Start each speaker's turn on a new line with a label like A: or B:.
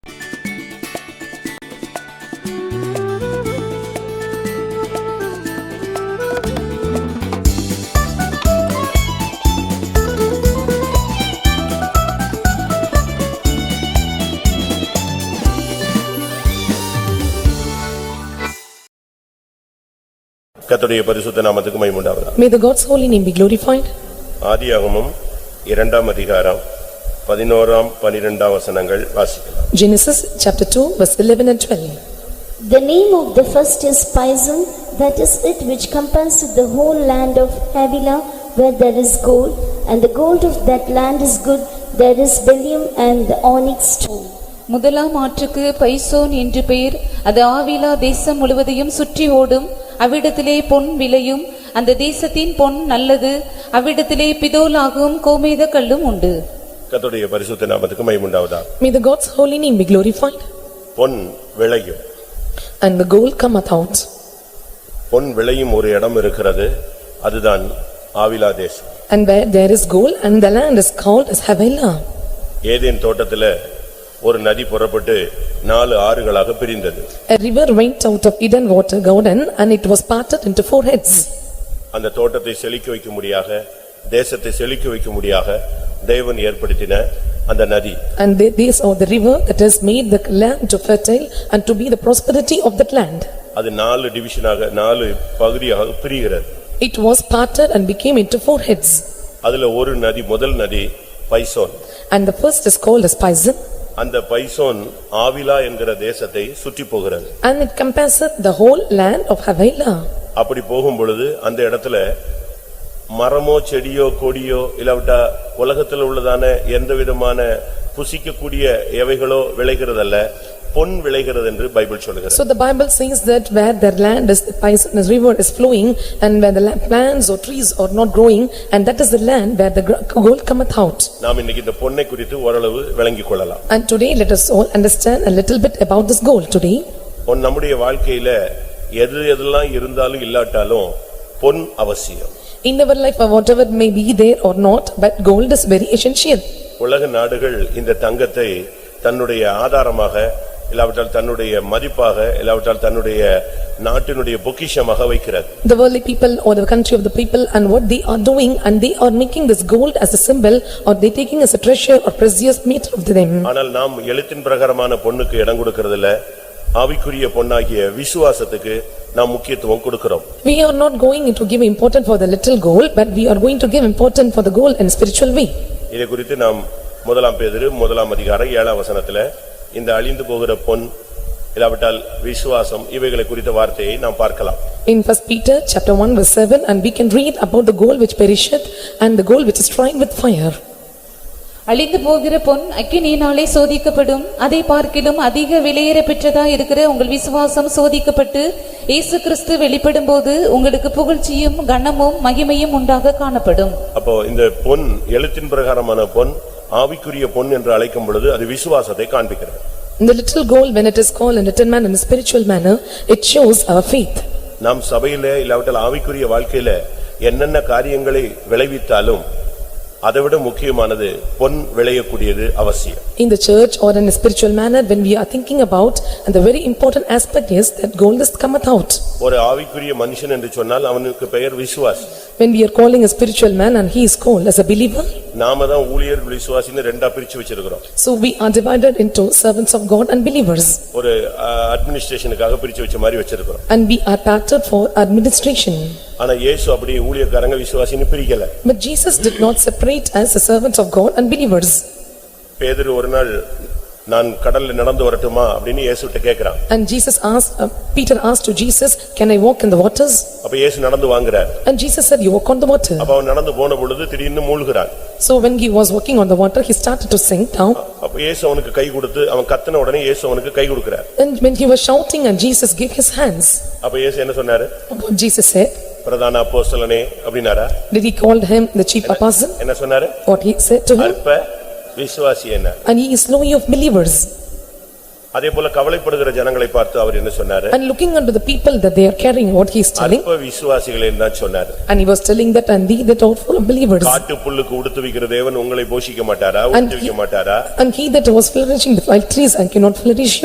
A: கர்த்தருடைய பரிசுத்த நாமத்துக்கு மைமுண்டாவதா
B: May the God's holy name be glorified.
A: ஆதியாகமம் இரண்டாம் அதிகாரம் பதினோராம் பனிரெண்டாம் வசனங்கள் வாசிக்கலாம்
B: Genesis chapter 2 verse 11 and 12.
C: The name of the first is Pison, that is it which compasseth the whole land of Havilah, where there is gold, and the gold of that land is good, there is bellium and the onyx stone.
D: முதலாம் ஆற்றுக்கு பைசோன் என்று பெயர் அது Avila தேசம் முழுவதையும் சுற்றி ஓடும் அவ்விடத்திலே பொன் விளையும் அந்த தேசத்தின் பொன் நல்லது அவ்விடத்திலே பிதோலாகவும் கோமேத கல்லும் உண்டு
A: கர்த்தருடைய பரிசுத்த நாமத்துக்கு மைமுண்டாவதா
B: May the God's holy name be glorified
A: பொன் விளையும்
B: and the gold cometh out.
A: பொன் விளையும் ஒரு இடம் இருக்கிறது அதுதான் ஆவிலா தேசம்
B: And where there is gold and the land is called as Havilah.
A: ஏதேன் தோட்டத்துல ஒரு நதி புறப்பட்டு நாலு ஆறுகளாக பிரிந்தது
B: A river went out of Eden water garden and it was parted into four heads.
A: அந்த தோட்டத்தை செழிக்க வைக்கும்படியாக தேசத்தை செழிக்க வைக்கும்படியாக தேவன் ஏற்படுத்தின அந்த நதி
B: And they- these are the river that has made the land to fertile and to be the prosperity of that land.
A: அது நாலு டிவிஷனாக நாலு பகுதியாக பிரிகிறது
B: It was parted and became into four heads.
A: அதுல ஒரு நதி முதல் நதி பைசோன்
B: And the first is called as Pison
A: அந்த பைசோன் ஆவிலா என்கிற தேசத்தை சுற்றி போகிறது
B: and it compasseth the whole land of Havilah.
A: அப்படி போகும் பொழுது அந்த இடத்துல மரமோ செடியோ கொடியோ இல்லாவிட்டா உலகத்தில் உள்ளதான எந்த விதமான புசிக்கக்கூடிய எவைகளோ விளைகிறதல்ல பொன் விளைகிறது என்று பைபிள் சொல்கிறது
B: So the Bible says that where their land is, the Pison's river is flowing and where the la- plants or trees are not growing and that is the land where the gr- gold cometh out.
A: நாம் இன்னைக்கு இந்த பொன்னை குறித்து ஓரளவு விளங்கிக் கொள்ளலாம்
B: And today let us all understand a little bit about this gold today.
A: பொன் நம்முடைய வாழ்க்கையில எது எதெல்லாம் இருந்தாலும் இல்லாட்டாலும் பொன் அவசியம்
B: In our life or whatever may be there or not, but gold is very essential.
A: உலக நாடுகள் இந்த தங்கத்தை தன்னுடைய ஆதாரமாக இல்லாவிட்டால் தன்னுடைய மதிப்பாக இல்லாவிட்டால் தன்னுடைய நாட்டினுடைய பொக்கிஷமாக வைக்கிறது
B: The worldly people or the country of the people and what they are doing and they are making this gold as a symbol or they taking as a treasure or precious metal of them.
A: ஆனால் நாம் எழுத்தின் பிரகாரமான பொண்ணுக்கு இடம் கொடுக்கறதில்ல ஆவிக்குரிய பொண்ணாகிய விசுவாசத்துக்கு நாம் முக்கியத்துவம் கொடுக்கிறோம்
B: We are not going to give important for the little gold, but we are going to give important for the gold in a spiritual way.
A: இதை குறித்து நாம் முதலாம் பேதுரு முதலாம் அதிகாரம் ஏழாம் வசனத்துல இந்த அழிந்து போகிற பொன் இல்லாவிட்டால் விசுவாசம் இவைகளை குறித்த வார்த்தையை நாம் பார்க்கலாம்
B: In first Peter, chapter one verse seven, and we can read about the gold which perisheth and the gold which is tried with fire.
D: அழிந்து போகிற பொன் அக்கினியினாலே சோதிக்கப்படும் அதை பார்க்கிலும் அதிக விலையேற பெற்றதா இருக்கிற உங்கள் விசுவாசம் சோதிக்கப்பட்டு இயேசு கிறிஸ்து வெளிப்படும்போது உங்களுக்கு புகழ்ச்சியும் கனமும் மகிமையும் உண்டாக காணப்படும்
A: அப்போ இந்த பொன் எழுத்தின் பிரகாரமான பொன் ஆவிக்குரிய பொன் என்று அழைக்கும் பொழுது அது விசுவாசத்தை காண்பிக்கிறது
B: The little gold, when it is called in written man in a spiritual manner, it shows our faith.
A: நாம் சபையிலே இல்லாவிட்டால் ஆவிக்குரிய வாழ்க்கையில என்னென்ன காரியங்களை விளைவித்தாலும் அதைவிட முக்கியமானது பொன் விளையக்கூடியது அவசியம்
B: In the church or in a spiritual manner, when we are thinking about, and the very important aspect is that gold is cometh out.
A: ஒரு ஆவிக்குரிய மனுஷன் என்று சொன்னால் அவனுக்கு பெயர் விசுவாசி
B: When we are calling a spiritual man and he is called as a believer,
A: நாம தான் ஊழியர் விசுவாசின்னு ரெண்டா பிரிச்சு வச்சிருக்கிறோம்
B: so we are divided into servants of God and believers.
A: ஒரு அட்மினிஸ்ட்ரேஷனுக்காக பிரிச்சு வச்ச மாதிரி வச்சிருக்கிறோம்
B: And we are parted for administration.
A: ஆனா இயேசு அப்படி ஊழியக்காரங்க விசுவாசின்னு பிரிக்கல
B: But Jesus did not separate us as servants of God and believers.
A: பேதுரு ஒரு நாள் நான் கடல்ல நடந்து வரட்டுமா அப்படின்னு இயேசுட்ட கேக்குறான்
B: And Jesus asked, uh, Peter asked to Jesus, "Can I walk in the waters?"
A: அப்ப இயேசு நடந்து வாங்குறார்
B: And Jesus said, "You walk on the water."
A: அப்ப அவன் நடந்து போன பொழுது திடீர்னு மூழ்கிறான்
B: So when he was walking on the water, he started to sink down.
A: அப்ப இயேசு அவனுக்கு கை கொடுத்து அவன் கத்தின உடனே இயேசு அவனுக்கு கை கொடுக்கிறார்
B: And when he was shouting and Jesus gave his hands,
A: அப்ப இயேசு என்ன சொன்னாரு
B: what Jesus said,
A: பிரதான அப்போஸ்தலனே அப்படின்னாரா
B: did he call him the chief apostle?
A: என்ன சொன்னாரு
B: What he said to him?
A: அற்ப விசுவாசி என்ன
B: And he is lowly of believers
A: அதே போல கவலைப்படுகிற ஜனங்களை பார்த்து அவர் என்ன சொன்னாரு
B: and looking unto the people that they are carrying what he is telling.
A: அற்ப விசுவாசிகளை தான் சொன்னாரு
B: And he was telling that and thee that are full of believers.
A: காட்டு புல்லுக்கு உடுத்து வைக்கிற தேவன் உங்களை போஷிக்க மாட்டாரா
B: And
A: உடுத்து
B: he-
A: வைக்க மாட்டாரா
B: And he that was flourishing the fig trees and cannot flourish